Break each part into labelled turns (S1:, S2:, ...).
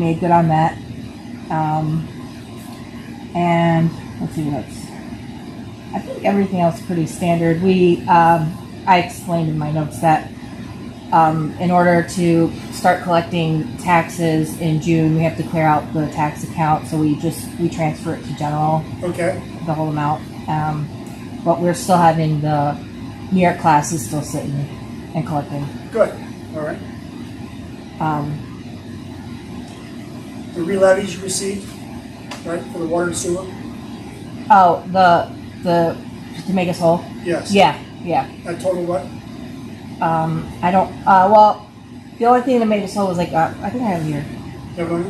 S1: made good on that. Um, and let's see what's. I think everything else is pretty standard. We, um, I explained in my notes that um, in order to start collecting taxes in June, we have to clear out the tax account. So we just we transfer it to general
S2: Okay,
S1: the whole amount. Um, but we're still having the New York class is still sitting and collecting.
S2: good, all right.
S1: Um,
S2: The re-levies you received, right, for the water and sewer?
S1: oh, the the to make us whole.
S2: Yes.
S1: Yeah, yeah.
S2: That total what?
S1: Um, I don't. Uh, well, the only thing that made us whole was like uh, I think I have it here.
S2: Everyone?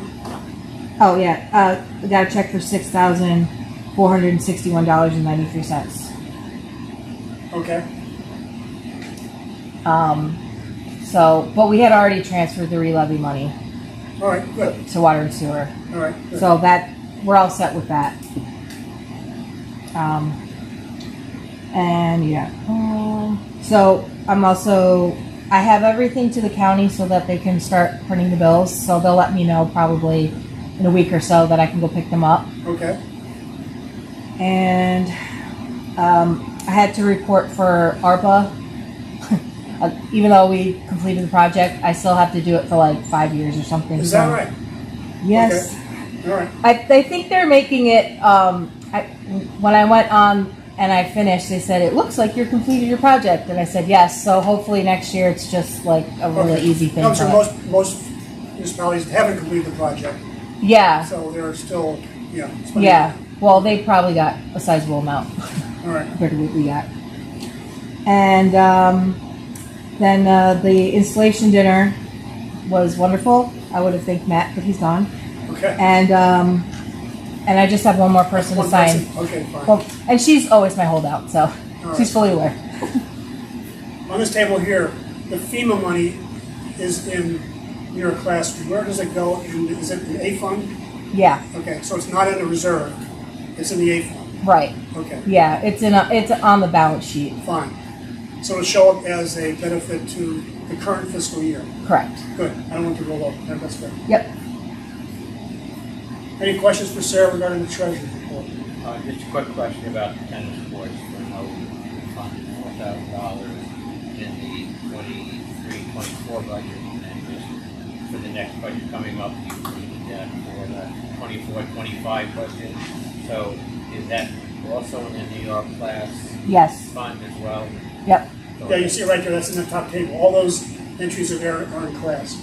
S1: Oh yeah, uh, we got a check for six thousand four hundred and sixty-one dollars and ninety-three cents.
S2: Okay,
S1: Um, so, but we had already transferred the re-levy money
S2: all right, good,
S1: to water and sewer.
S2: all right. good.
S1: So that, we're all set with that. Um, and yeah, um, so I'm also, I have everything to the county so that they can start printing the bills. So they'll let me know probably in a week or so that I can go pick them up.
S2: Okay,
S1: And um, I had to report for ARPA. Uh, Even though we completed the project, I still have to do it for like five years or something.
S2: is that
S1: so-
S2: right?
S1: Yes.
S2: Okay. All right,
S1: I, I think they're making it. Um, I, when I went on and I finished, they said it looks like you're completed your project, and I said yes. So hopefully next year it's just like a really
S2: Okay.
S1: easy thing.
S2: No,
S1: for
S2: so
S1: us.
S2: most, most municipalities haven't completed the project,
S1: yeah,
S2: so they're still, yeah. it's funny.
S1: Uh. yeah. Well, they probably got a sizable amount
S2: All right,
S1: compared to what we got, and um, then uh, the installation dinner was wonderful. I would have thanked Matt, but he's gone,
S2: okay.
S1: and um, and I just have one more person
S2: One
S1: to sign.
S2: person. Okay, fine.
S1: Well, and she's always my holdout, so she's fully aware.
S2: On this table here, the FEMA money is in your class, where does it go, and is it an A fund?
S1: Yeah,
S2: Okay, so it's not in the reserve, it's in the A fund,
S1: right.
S2: okay.
S1: Yeah, it's in a, it's on the balance sheet.
S2: Fine. So it'll show up as a benefit to the current fiscal year.
S1: Correct.
S2: Good. I don't want to roll over. That's fair.
S1: Yep.
S2: Any questions for Sarah regarding the treasury report?
S3: Uh, just a quick question about the tennis courts, for how we funded four thousand dollars in the twenty-three, twenty-four budget. And just for the next budget coming up, you needed that for the twenty-four, twenty-five budget. So is that also in the New York class
S1: Yes.
S3: fund as well?
S1: Yep.
S2: Yeah, you see it right there. That's in the top table. All those entries are there are in class.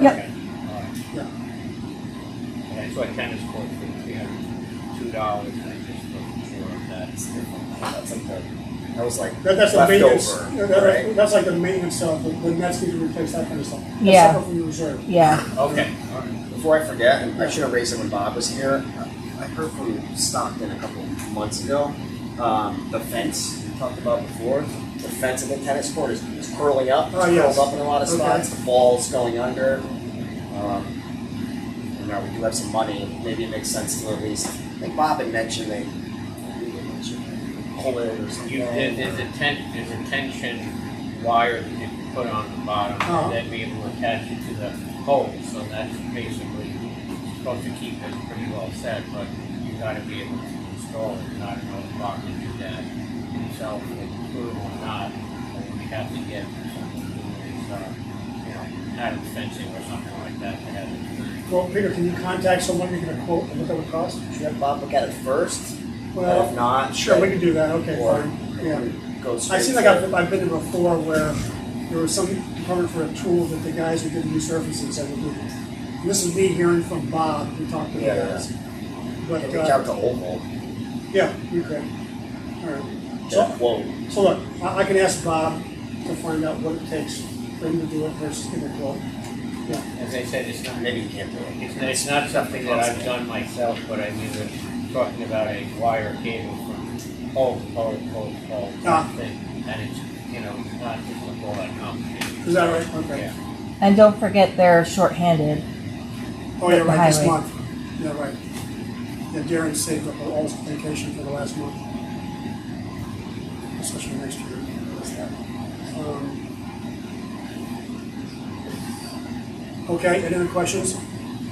S1: Yep.
S3: Okay, all right.
S2: Yeah.
S3: Uh, And I saw a tennis court for three hundred, two dollars, and I just wasn't sure if that's.
S4: That's like the, that was like
S2: That, that's the maintenance.
S4: leftover,
S2: that- that-
S4: right?
S2: That's like the maintenance of the, the nets need to replace that kind of stuff. That's
S1: Yeah.
S2: separate from the reserve.
S1: Yeah.
S3: Okay, all right.
S4: Before I forget, and I should have raised it when Bob was here. I heard from Stockton a couple months ago. Um, the fence we talked about before, the fence in the tennis court is, is curling up,
S2: Oh,
S4: it's
S2: yes.
S4: curled up in a lot of
S2: Okay.
S4: spots. The ball's going under. Um, you know, we do have some money. Maybe it makes sense to at least. I think Bob had mentioned they pull it or something.
S3: You, there- there's a ten, there's a tension wire that you can put on the bottom
S2: Uh-huh.
S4: Oh.
S3: and then be able to attach it to the pole, so that's basically supposed to keep it pretty well set, but you gotta be able to install it, and I don't know if Bob can do that himself, if crew or not, or we have to get something, to do, uh, you know, added fencing or something like that to have it.
S2: Well, Peter, can you contact someone you can quote and look at what cost?
S4: Should we have Bob look at it first?
S2: Well,
S4: if Uh, not,
S2: Sure, we
S4: then-
S2: can do that. Okay,
S4: or
S2: fine. Yeah.
S4: go straight.
S2: I seem like
S4: to-
S2: I've, I've been there before where there was some department for a tool that the guys who did new services that would do. And this is me hearing from Bob, who talked to the
S4: Yeah, yeah.
S2: guys.
S4: I
S2: But,
S4: can reach out
S2: uh,
S4: to Oval.
S2: yeah, you could. All right. So,
S4: Whoa.
S2: so look, I, I can ask Bob to find out what it takes for him to do it versus give a quote. Yeah,
S3: As I said, it's not
S4: Maybe you can't do it.
S3: It's, it's not something that I've done myself, but I mean, we're talking about a wire cable from pole, to pole, to pole, to pole,
S2: Ah.
S3: something, and it's, you know, it's not just a all that complicated.
S2: is that right? Okay.
S3: Yeah.
S1: And don't forget they're shorthanded.
S2: Oh, yeah, right, this
S1: Highway.
S2: month. Yeah, right. Yeah, Darren saved up all his vacation for the last month. Especially next year. That's that. Um, Okay, any other questions?